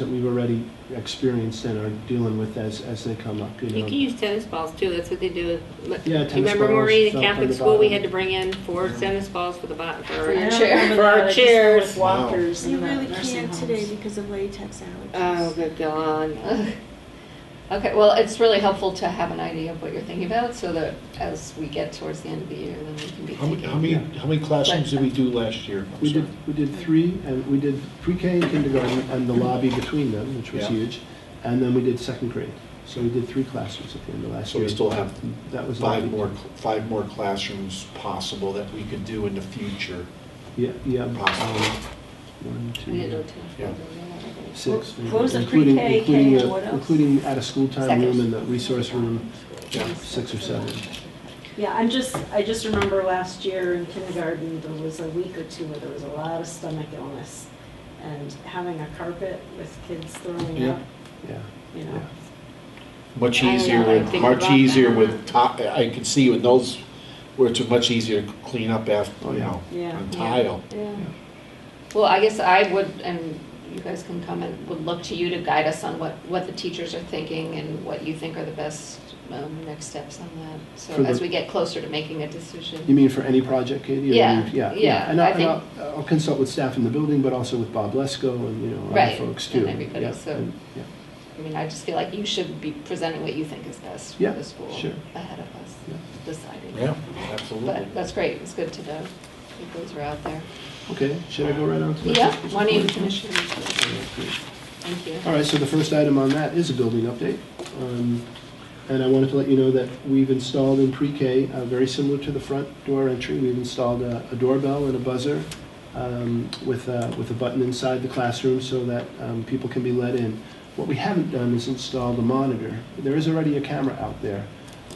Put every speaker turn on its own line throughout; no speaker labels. that we've already experienced and are dealing with as, as they come up, you
You
know.
can use tennis balls too, that's what they do. with-
Yeah,
Do
tennis
you remember
balls,
Marie, the
felt on
Catholic
the
school, we
bottom.
had to bring in four tennis balls for the bottom, for,
Yeah.
oh,
chair.
For our chairs.
With walkers
You
in the
really
nursing
can't
homes. Oh,
today because of latex allergies.
Oh, good God.
Okay, well, it's really helpful to have an idea of what you're thinking about so that as we get towards the end of the year, then we can be
How many, how
thinking.
many, how many classrooms did we do last year? I'm
We did,
sorry.
we did three, and we did pre-K and kindergarten, and the lobby between them, which was
Yeah.
huge. And then we did second grade. So we did three classrooms at the end of last
So
year.
we still have
That was
five
already-
more, five more classrooms possible that we could do in the future.
Yeah, yeah. um,
Possible.
One, two,
We didn't know
Yeah.
ten.
six.
What was the
including-
pre-K,
including
K,
the-
and what else?
Including out-of-school time
Second.
room and the resource room,
Yeah.
six or seven.
Yeah, I'm just, I just remember last year in kindergarten, there was a week or two where there was a lot of stomach illness. And having a carpet with kids throwing
Yeah.
up,
Yeah,
you know.
yeah.
Much
I don't
easier,
know, I
with
think
much
about
easier
that.
with top, I can see with those, where it's much easier to clean up after,
Oh,
you
yeah.
know,
Yeah.
on
Yeah.
tile.
Yeah. Well, I guess I would, and you guys can comment, would look to you to guide us on what, what the teachers are thinking and what you think are the best um, next steps on that.
For
So
the-
as we get closer to making a
You
decision.
mean for any project, Katie? You
Yeah,
mean-
yeah,
And I'll,
I
and I'll, I'll consult with staff in the building, but also with Bob Lesko and, you know, other
Right,
folks too.
and everybody,
Yeah,
so-
and- yeah.
I mean, I just feel like you should be presenting what you think is best for
Yeah,
the school
sure.
ahead of us
Yeah.
deciding.
Yeah, absolutely.
But that's great, it's good to know that those are out there.
Okay, should I go right on to that?
Yeah, why don't you finish your report? Thank you.
All right, so the first item on that is a building update. Um, And I wanted to let you know that we've installed in pre-K, uh, very similar to the front door entry, we've installed a a doorbell and a buzzer um, with a, with a button inside the classroom so that um, people can be let in. What we haven't done is installed a monitor. There is already a camera out there,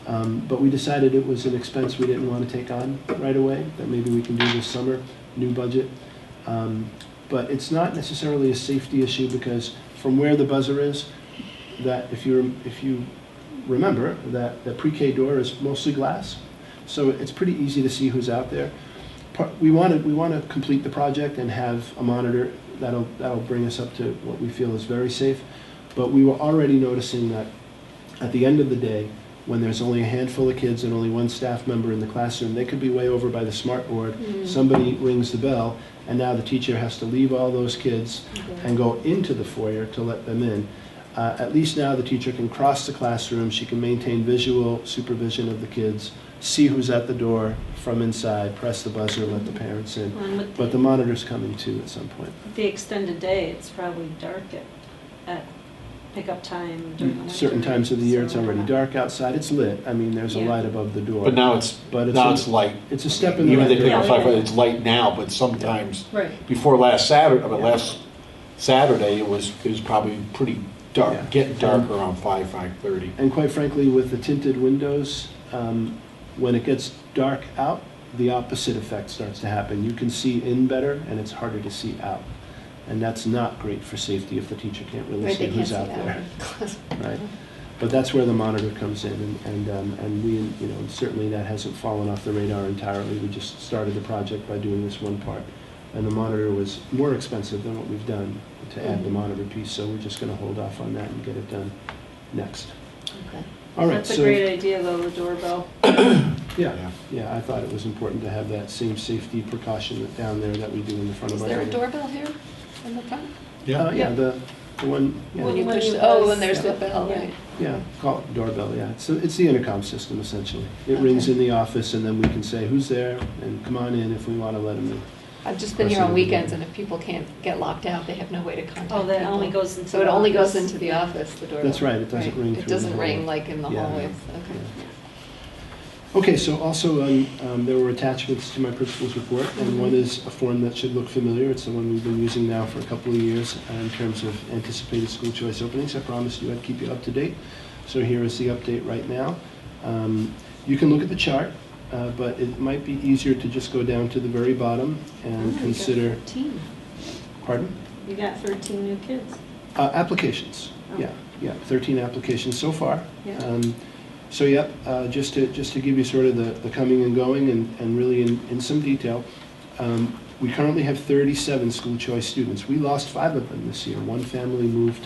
um, but we decided it was an expense we didn't want to take on right away, that maybe we can do this summer, new budget. Um, But it's not necessarily a safety issue because from where the buzzer is, that if you, if you remember, that the pre-K door is mostly glass, so it's pretty easy to see who's out there. Par- We want to, we want to complete the project and have a monitor that'll, that'll bring us up to what we feel is very safe. But we were already noticing that at the end of the day, when there's only a handful of kids and only one staff member in the classroom, they could be way over by the smart board. Somebody rings the bell, and now the teacher has to leave all those kids and go into the foyer to let them in. Uh, At least now, the teacher can cross the classroom, she can maintain visual supervision of the kids, see who's at the door from inside, press the buzzer, let the parents in.
And with
But the
the,
monitor's coming too at some point.
the extended day, it's probably dark at, at pickup time during the winter.
Mm, Certain times of the year, it's
so-
already dark outside, it's lit, I mean, there's a
Yeah.
light above the door.
But now it's,
But it's
now
a-
it's light.
It's a step in the
Even
right
if they
direction.
Yeah,
don't talk
yeah.
about it, it's light now, but sometimes,
Right.
before last Saturday, but
Yeah.
last Saturday, it was, it was probably pretty
Yeah.
dark, getting dark around five, five-thirty.
And quite frankly, with the tinted windows, um, when it gets dark out, the opposite effect starts to happen. You can see in better, and it's harder to see out. And that's not great for safety if the teacher can't really
Right,
see
they can't
who's
see
out
that.
there. Right? But that's where the monitor comes in, and, and, um, and we, you know, certainly that hasn't fallen off the radar entirely. We just started the project by doing this one part. And the monitor was more expensive than what we've done to add the
Mm-hmm.
Mhm.
monitor piece, so we're just gonna hold off on that and get it done next.
Okay.
All right,
That's a
so-
great idea though, the doorbell.
Yeah, yeah, I thought it was important to have that same safety precaution that down there that we do in the front of
Is
our
there a
building.
doorbell here in the front?
Uh,
Yeah,
yeah, the, the one,
When
yeah,
you
Well,
push,
it
oh,
was-
and there's the bell,
yeah.
right?
yeah, call it doorbell, yeah. So it's the intercom system essentially. It
Okay.
rings in the office and then we can say, who's there? And come on in if we want to let them in.
I've just been here on
Person.
weekends, and if people can't get locked out, they have no way to contact people.
Oh, that only goes into.
So it only goes
office.
into the office, the doorbell?
That's right, it doesn't ring through
It
the
doesn't ring
hallway.
like in the
Yeah.
hallways, okay.
Okay, so also, um, um, there were attachments to my principal's report,
Mm-hmm.
and one is a form that should look familiar. It's the one we've been using now for a couple of years uh, in terms of anticipated school choice openings. I promised you I'd keep you up to date, so here is the update right now. Um, You can look at the chart, uh, but it might be easier to just go down to the very bottom
Oh, we
and
got
consider,
14.
pardon?
You got thirteen new kids.
Uh, Applications,
Oh.
yeah, yeah, 13 applications so far.
Yeah.
Um, So, yep, uh, just to, just to give you sort of the the coming and going and and really in in some detail, um, We currently have 37 school choice students. We lost five of them this year. One family moved